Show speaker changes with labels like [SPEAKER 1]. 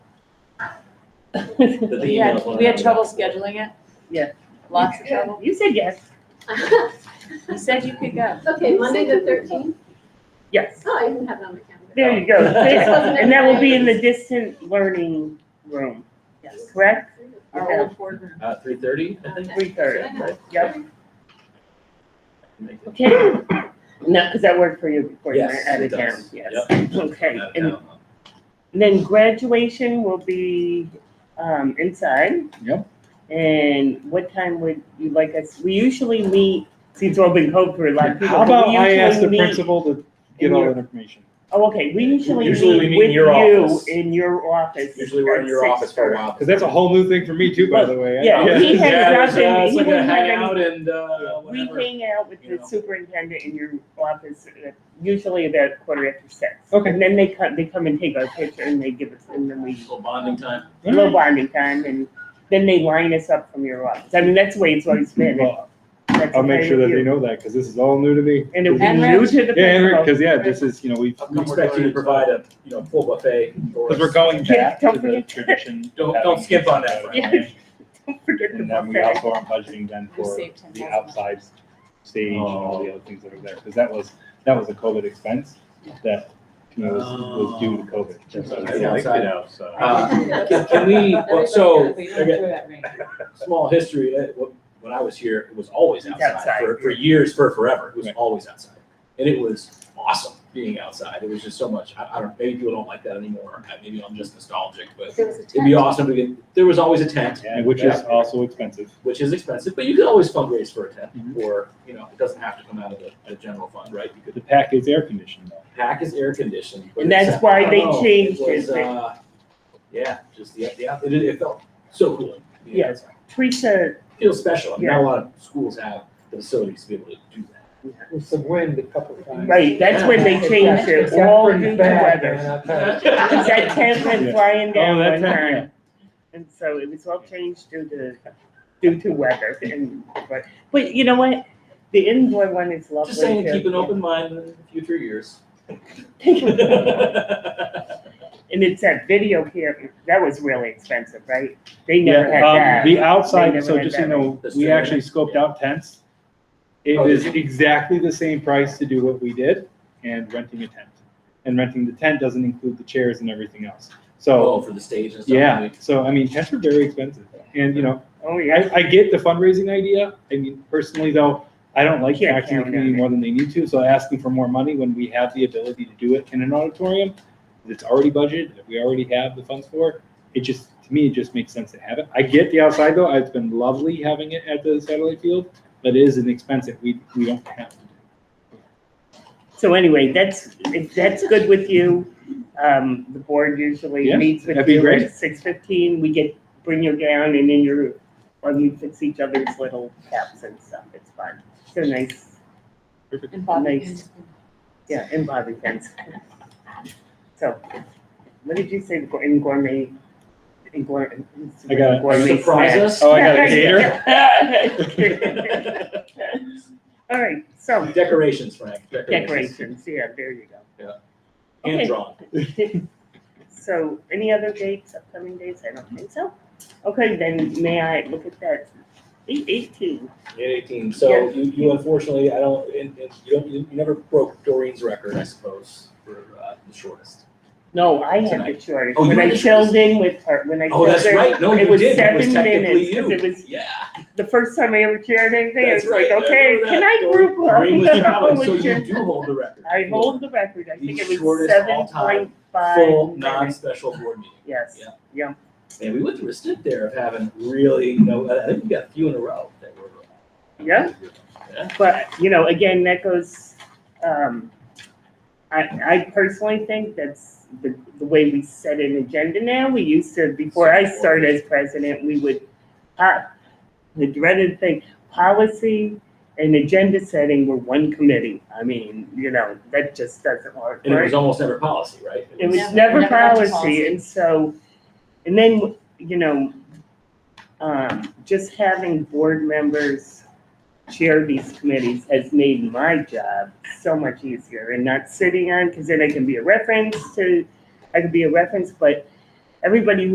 [SPEAKER 1] But the
[SPEAKER 2] We had,
[SPEAKER 1] emails won't
[SPEAKER 2] we had
[SPEAKER 1] have
[SPEAKER 2] trouble scheduling it.
[SPEAKER 3] Yeah.
[SPEAKER 2] Lots of trouble.
[SPEAKER 3] You said yes.
[SPEAKER 2] You said you could go.
[SPEAKER 4] Okay, Monday the thirteenth.
[SPEAKER 3] Yes.
[SPEAKER 4] Oh, I even have it on my calendar.
[SPEAKER 3] There you go. And that will be in the distant learning room, correct?
[SPEAKER 2] Our old board room.
[SPEAKER 1] that. Uh, three thirty, I think.
[SPEAKER 3] Three thirty.
[SPEAKER 1] Right?
[SPEAKER 3] Yep.
[SPEAKER 1] Make it-
[SPEAKER 3] Okay. No, because I worked for you before you were
[SPEAKER 1] Yes,
[SPEAKER 3] out
[SPEAKER 1] it
[SPEAKER 3] of town.
[SPEAKER 1] does.
[SPEAKER 3] Yes.
[SPEAKER 1] Yep.
[SPEAKER 3] Okay.
[SPEAKER 1] Out of
[SPEAKER 3] And
[SPEAKER 1] town.
[SPEAKER 3] then graduation will be um, inside.
[SPEAKER 5] Yep.
[SPEAKER 3] And what time would you like us? We usually meet. See, it's all been code for a lot of people.
[SPEAKER 5] How
[SPEAKER 3] but we
[SPEAKER 5] about I
[SPEAKER 3] usually
[SPEAKER 5] ask the
[SPEAKER 3] meet-
[SPEAKER 5] principal to get all
[SPEAKER 3] your-
[SPEAKER 5] that information?
[SPEAKER 3] Oh, okay. We usually
[SPEAKER 1] Usually
[SPEAKER 3] meet
[SPEAKER 1] we meet in
[SPEAKER 3] with
[SPEAKER 1] your
[SPEAKER 3] you
[SPEAKER 1] office.
[SPEAKER 3] in your office.
[SPEAKER 1] Usually we're in
[SPEAKER 3] at
[SPEAKER 1] your
[SPEAKER 3] six
[SPEAKER 1] office for a
[SPEAKER 3] thirty.
[SPEAKER 1] while.
[SPEAKER 5] Because that's a whole new thing for me too, by the way. I-
[SPEAKER 3] Yeah, he hangs
[SPEAKER 1] Yeah,
[SPEAKER 3] out
[SPEAKER 1] it's,
[SPEAKER 3] and
[SPEAKER 1] uh, it's
[SPEAKER 3] he
[SPEAKER 1] like
[SPEAKER 3] wouldn't
[SPEAKER 1] a
[SPEAKER 3] have any-
[SPEAKER 1] hangout and, uh,
[SPEAKER 3] We
[SPEAKER 1] whatever.
[SPEAKER 3] hang out with
[SPEAKER 1] you
[SPEAKER 3] the
[SPEAKER 1] know.
[SPEAKER 3] superintendent in your office, uh, usually about quarter after six.
[SPEAKER 5] Okay.
[SPEAKER 3] And then they come, they come and take our picture and they give us, and then we,
[SPEAKER 1] Little bonding time.
[SPEAKER 5] All
[SPEAKER 3] no
[SPEAKER 5] right.
[SPEAKER 3] bonding time, and then they line us up from your office. I mean, that's the way it's always been.
[SPEAKER 5] Well,
[SPEAKER 3] That's
[SPEAKER 5] I'll make
[SPEAKER 3] okay
[SPEAKER 5] sure that
[SPEAKER 3] with
[SPEAKER 5] they
[SPEAKER 3] you.
[SPEAKER 5] know that because this is all new to me.
[SPEAKER 3] And it was
[SPEAKER 2] And
[SPEAKER 3] new to the
[SPEAKER 5] Yeah, Eric, because
[SPEAKER 3] principal.
[SPEAKER 5] yeah, this is, you know, we
[SPEAKER 1] How come
[SPEAKER 5] we
[SPEAKER 1] we're
[SPEAKER 5] expect
[SPEAKER 1] going
[SPEAKER 5] you
[SPEAKER 1] to
[SPEAKER 5] to provide.
[SPEAKER 1] provide a, you know, full buffet. for
[SPEAKER 5] Because
[SPEAKER 1] us?
[SPEAKER 5] we're going
[SPEAKER 3] Yeah,
[SPEAKER 5] back to
[SPEAKER 3] don't
[SPEAKER 5] the
[SPEAKER 3] forget.
[SPEAKER 5] tradition.
[SPEAKER 1] Don't-
[SPEAKER 5] of
[SPEAKER 1] don't
[SPEAKER 5] having
[SPEAKER 1] skip on that,
[SPEAKER 5] that,
[SPEAKER 1] Frank.
[SPEAKER 5] right?
[SPEAKER 3] Don't forget the
[SPEAKER 5] And then we
[SPEAKER 3] buffet.
[SPEAKER 5] also are budgeting then
[SPEAKER 2] We
[SPEAKER 5] for
[SPEAKER 2] saved ten
[SPEAKER 5] the
[SPEAKER 2] thousand.
[SPEAKER 5] outside stage and all
[SPEAKER 1] Oh.
[SPEAKER 5] the other things that are there. Because that was, that was a COVID expense that, you know, was, was due to COVID.
[SPEAKER 1] It's Oh. outside.
[SPEAKER 5] Uh,
[SPEAKER 1] Uh, Can can we, well, so,
[SPEAKER 2] Everybody knows we
[SPEAKER 1] I
[SPEAKER 2] don't
[SPEAKER 1] got
[SPEAKER 2] throw that ring.
[SPEAKER 1] small history, uh, wh- when I was here, it was always
[SPEAKER 3] It's
[SPEAKER 1] outside
[SPEAKER 3] outside.
[SPEAKER 1] for, for years, for forever. It was
[SPEAKER 5] Right.
[SPEAKER 1] always outside. And it was awesome being outside. It was just so much, I, I don't, maybe people don't like that anymore. Uh, Maybe I'm just nostalgic, but
[SPEAKER 4] There was a
[SPEAKER 1] it'd be
[SPEAKER 4] tent.
[SPEAKER 1] awesome to get, there was always a tent,
[SPEAKER 5] And which is also expensive.
[SPEAKER 1] which is expensive, but you could always fundraise for a tent.
[SPEAKER 3] Mm-hmm.
[SPEAKER 5] Mhm.
[SPEAKER 1] Or, you know, it doesn't have to come out of the, the general fund, right? You could
[SPEAKER 5] The pack is air conditioned though.
[SPEAKER 1] pack is air conditioned. but
[SPEAKER 3] And that's
[SPEAKER 1] it's-
[SPEAKER 3] why
[SPEAKER 1] I
[SPEAKER 3] they
[SPEAKER 1] don't know,
[SPEAKER 3] changed
[SPEAKER 1] Oh, it. was,
[SPEAKER 3] it.
[SPEAKER 1] uh, Yeah, just the, the, it, it felt so cool. being
[SPEAKER 3] Yeah.
[SPEAKER 1] outside.
[SPEAKER 3] Teresa,
[SPEAKER 1] Feels special. I mean,
[SPEAKER 3] Yeah.
[SPEAKER 1] Not a lot of schools have the facilities to be able to do that.
[SPEAKER 6] With some wind a couple of times.
[SPEAKER 3] right, that's when they changed it, all due to weather. Because that tent went
[SPEAKER 5] Yeah.
[SPEAKER 3] flying down
[SPEAKER 5] Oh, that
[SPEAKER 3] one
[SPEAKER 5] tent,
[SPEAKER 3] time. And so it was all changed due to, due to weather and, but, but you know what? The indoor one is lovely.
[SPEAKER 1] Just saying,
[SPEAKER 3] too.
[SPEAKER 1] keep an open mind in future years.
[SPEAKER 3] And it's that video camera, that was really expensive, right? They never had
[SPEAKER 5] Yeah,
[SPEAKER 3] that.
[SPEAKER 5] um, the
[SPEAKER 3] They
[SPEAKER 5] outside,
[SPEAKER 3] never
[SPEAKER 5] so
[SPEAKER 3] had
[SPEAKER 5] just so you
[SPEAKER 3] that.
[SPEAKER 5] know,
[SPEAKER 1] The
[SPEAKER 5] we
[SPEAKER 1] straight
[SPEAKER 5] actually scoped out tents. It
[SPEAKER 1] Oh, did
[SPEAKER 5] was
[SPEAKER 1] you?
[SPEAKER 5] exactly the same price to do what we did and renting a tent. And renting the tent doesn't include the chairs and everything else. So,
[SPEAKER 1] Oh, for the stage and stuff.
[SPEAKER 5] yeah, so I mean, tents are very expensive. And, you know,
[SPEAKER 3] Oh, yeah.
[SPEAKER 5] I, I get the fundraising idea. I mean, personally though, I don't like
[SPEAKER 3] Can't
[SPEAKER 5] taxing the
[SPEAKER 3] count on
[SPEAKER 5] community
[SPEAKER 3] it.
[SPEAKER 5] more than they need to, so asking for more money when we have the ability to do it in an auditorium that's already budgeted, that we already have the funds for, it just, to me, it just makes sense to have it. I get the outside though, it's been lovely having it at the satellite field, but it is an expense that we, we don't have to do.
[SPEAKER 3] So anyway, that's, if that's good with you, um, the board usually
[SPEAKER 5] Yeah,
[SPEAKER 3] meets with
[SPEAKER 5] that'd be
[SPEAKER 3] you
[SPEAKER 5] great.
[SPEAKER 3] at six fifteen. We get, bring you down and then you're, or you fix each other's little caps and stuff. It's fun. So nice.
[SPEAKER 2] And Bobby
[SPEAKER 3] Nice.
[SPEAKER 2] Pins.
[SPEAKER 3] Yeah, in Bobby pins. So, what did you say, the gour- in gourmet, in gourmet?
[SPEAKER 5] I got it.
[SPEAKER 3] gourmet
[SPEAKER 1] Surprise
[SPEAKER 3] snack?
[SPEAKER 1] us.
[SPEAKER 5] Oh, I got a cater?
[SPEAKER 3] All right, so
[SPEAKER 1] Decorations, Frank.
[SPEAKER 3] decorations, yeah, there you go.
[SPEAKER 1] Hand drawn.
[SPEAKER 3] So, any other dates, upcoming dates? I don't think so. Okay, then may I look at that? Eight eighteen.
[SPEAKER 1] Eight eighteen, so you, you unfortunately, I don't, and, and you don't, you you never broke Doreen's record, I suppose, for, uh, the shortest.
[SPEAKER 3] No, I had the
[SPEAKER 1] Tonight.
[SPEAKER 3] choice.
[SPEAKER 1] Oh, you
[SPEAKER 3] When
[SPEAKER 1] had
[SPEAKER 3] I
[SPEAKER 1] the
[SPEAKER 3] filled in with her, when I
[SPEAKER 1] Oh,
[SPEAKER 3] filled
[SPEAKER 1] that's
[SPEAKER 3] in,
[SPEAKER 1] right, no,
[SPEAKER 3] it
[SPEAKER 1] you
[SPEAKER 3] was
[SPEAKER 1] did, it was
[SPEAKER 3] seven
[SPEAKER 1] technically
[SPEAKER 3] minutes, 'cause
[SPEAKER 1] you.
[SPEAKER 3] it was-
[SPEAKER 1] Yeah.
[SPEAKER 3] the first time I ever chaired anything, I
[SPEAKER 1] That's
[SPEAKER 3] was like,
[SPEAKER 1] right, I
[SPEAKER 3] okay,
[SPEAKER 1] remember
[SPEAKER 3] can
[SPEAKER 1] that.
[SPEAKER 3] I group up?
[SPEAKER 1] Doreen was the
[SPEAKER 3] I
[SPEAKER 1] comment,
[SPEAKER 3] was
[SPEAKER 1] so you
[SPEAKER 3] just-
[SPEAKER 1] do hold the record.
[SPEAKER 3] I hold the record, I think
[SPEAKER 1] The
[SPEAKER 3] it was
[SPEAKER 1] shortest
[SPEAKER 3] seven
[SPEAKER 1] all-time
[SPEAKER 3] point five
[SPEAKER 1] Full,
[SPEAKER 3] minutes,
[SPEAKER 1] non-special board meeting.
[SPEAKER 3] yes,
[SPEAKER 1] Yeah.
[SPEAKER 3] yeah,
[SPEAKER 1] And we went through a stint there of having really, you know, I I think we got a few in a row that were. uh,
[SPEAKER 3] Yeah.
[SPEAKER 1] Yeah.
[SPEAKER 3] but, you know, again, that goes, um, I, I personally think that's the, the way we set an agenda now, we used to, before I started as president, we would, uh, the dreaded thing, policy and agenda setting were one committee, I mean, you know, that just doesn't work,
[SPEAKER 1] And it
[SPEAKER 3] right?
[SPEAKER 1] was almost never policy, right?
[SPEAKER 3] It was
[SPEAKER 2] Never-
[SPEAKER 3] never
[SPEAKER 2] never got to
[SPEAKER 3] policy,
[SPEAKER 2] policy.
[SPEAKER 3] and so, and then, you know, um, just having board members chair these committees has made my job so much easier and not sitting on, because then I can be a reference to, I can be a reference, but everybody who